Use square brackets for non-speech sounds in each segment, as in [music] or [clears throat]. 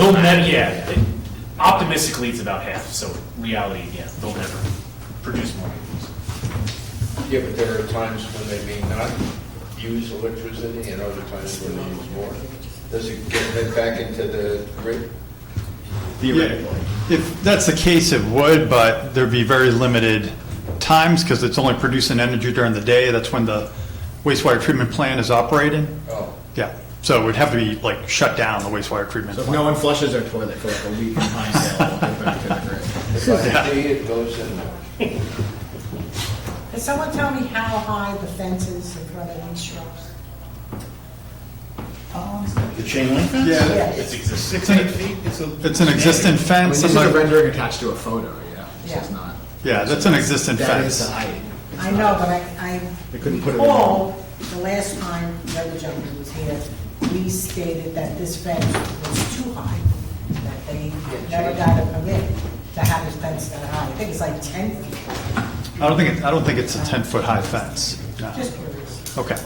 They'll never, yeah, optimistically, it's about half, so reality, yeah, they'll never produce more. Yeah, but there are times when they may not use electricity and other times when they use more. Does it get fed back into the grid? Theoretically. If that's the case, it would, but there'd be very limited times because it's only producing energy during the day. That's when the wastewater treatment plant is operating. Oh, Yeah, so it would have to be like shut down, the wastewater treatment So if plant. no one flushes their toilet for like a week in Pinedale, they'll go back to the grid. if I see it goes in there. Can someone tell me how high the fence is in front of these shrubs? The chain link fence? Yeah, It's existing. It's an- it's an existing I mean, fence. this is a rendering attached to a photo, yeah. This Yeah. is not, Yeah, that's an existing that is the fence. height. It's I not- know, but I, They I couldn't put it in. recall the last time the other gentleman was here, we stated that this fence was too high, that they never got a permit to have this fence that high. I think it's like 10 feet. I don't think, it- I don't think it's a 10-foot-high fence. No. Just curious. Okay.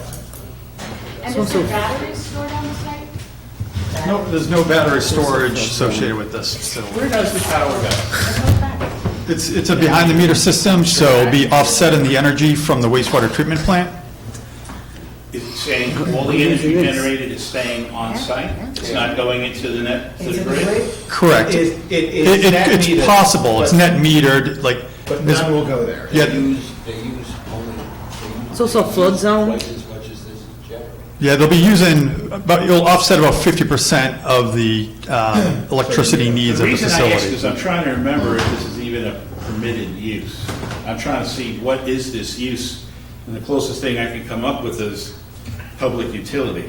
And is there batteries stored on the site? That- No, there's no battery storage associated with this facility. Where does the power go? It's, it's a behind-the-meter system, so it'll be offsetting the energy from the wastewater treatment plant. Is it saying all the energy generated is staying on site? It's not going into the net, to It's the in the grid. grid? Correct. It- it is It- it- net It's metered, possible, it's but- net metered, like, But this- none will go there. Yeah. They use, they use only. they It's also a use flood zone. Twice as much as this is generated. yeah, they'll be using, but you'll offset about 50% of the [clears throat] um, electricity needs The of the reason I ask facility. is I'm trying to remember if this is even a permitted use. I'm trying to see what is this use? And the closest thing I can come up with is public utility.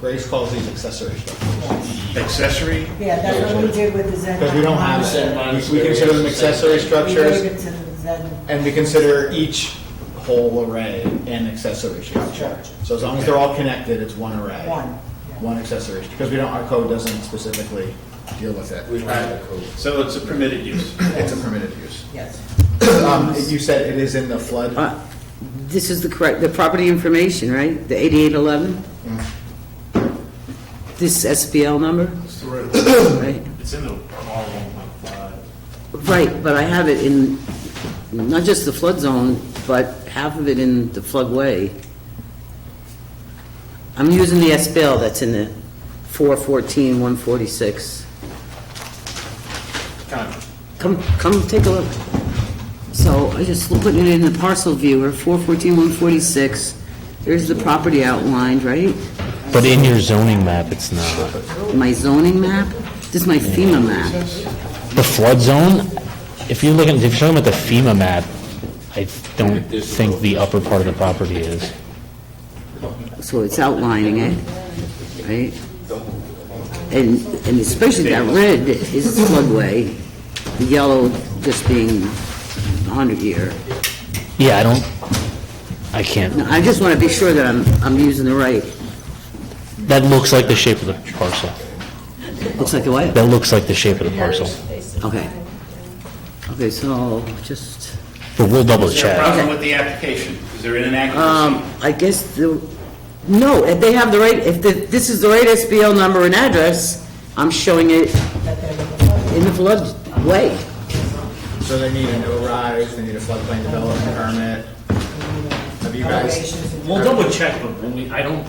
Grace calls these accessory structures. Accessory? Yeah, that's what we did with the Zen. Because we don't have, Zen minus we we consider them accessory We gave structures, it to the Zen. and we consider each whole array an accessory structure. So as long as they're all connected, it's one array. One, yeah. One accessory, because we don't, our code doesn't specifically deal with it. We don't have a code. So it's a permitted use. It's a permitted use. Yes. Um, You said it is in the flood? Uh, This is the correct, the property information, right? The 8811? This SBL number? Right, It's in the R one point five. Right, but I have it in, not just the flood zone, but half of it in the floodway. I'm using the SBL that's in the 414-146. Come, come take a look. So I just put it in the parcel viewer, 414-146. There's the property outlined, right? But in your zoning map, it's not. My zoning map? This is my FEMA map. The flood zone, if you're looking, if you're talking about the FEMA map, I don't think the upper part of the property is. So it's outlining it, right? And, and especially that red is floodway, the yellow just being 100 year. Yeah, I don't, I No, can't, I just want to be sure that I'm, I'm using the right, that looks like the shape of the parcel. looks like the what? That looks like the shape of the parcel. Okay. Okay, so just, But we'll double Is there a check. problem with the application? Is there an inaccuracy? um, I guess the, no, if they have the right, if the- this is the right SBL number and address, I'm showing it in the floodway. So they need an O-rise, they need a floodplain development permit. Have you guys, Elevations and- We'll double check, but when we, I don't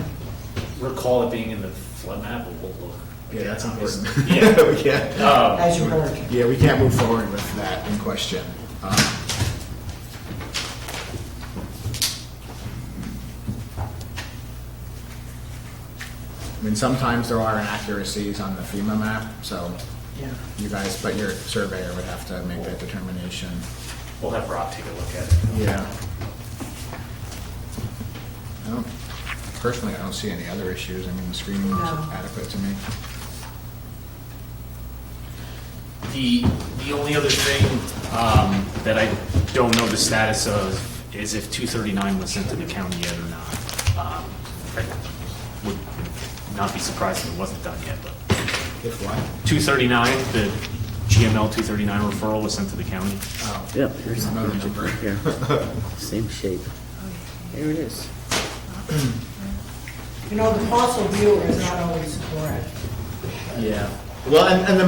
recall it being in the flood map, but we'll look. yeah, that's important. Yeah. [laughs] Yeah, As you heard. yeah, we can't move forward with that in question. Um, I mean, sometimes there are inaccuracies on the FEMA map, so Yeah. you guys, but your surveyor would have to make that determination. We'll have Rob take a look at it. Yeah. I don't, personally, I don't see any other issues. I mean, the screening is No. adequate to me. The, the only other thing um, that I don't know the status of is if 239 was sent to the county yet or not. Um, I Would not be surprised if it wasn't done yet, but If what? 239, the GML 239 referral was sent to the county. Yep, here's Another number. Yeah, [laughs] same shape. There it is. You know, the parcel viewer is not always correct. Yeah. Well, and, and the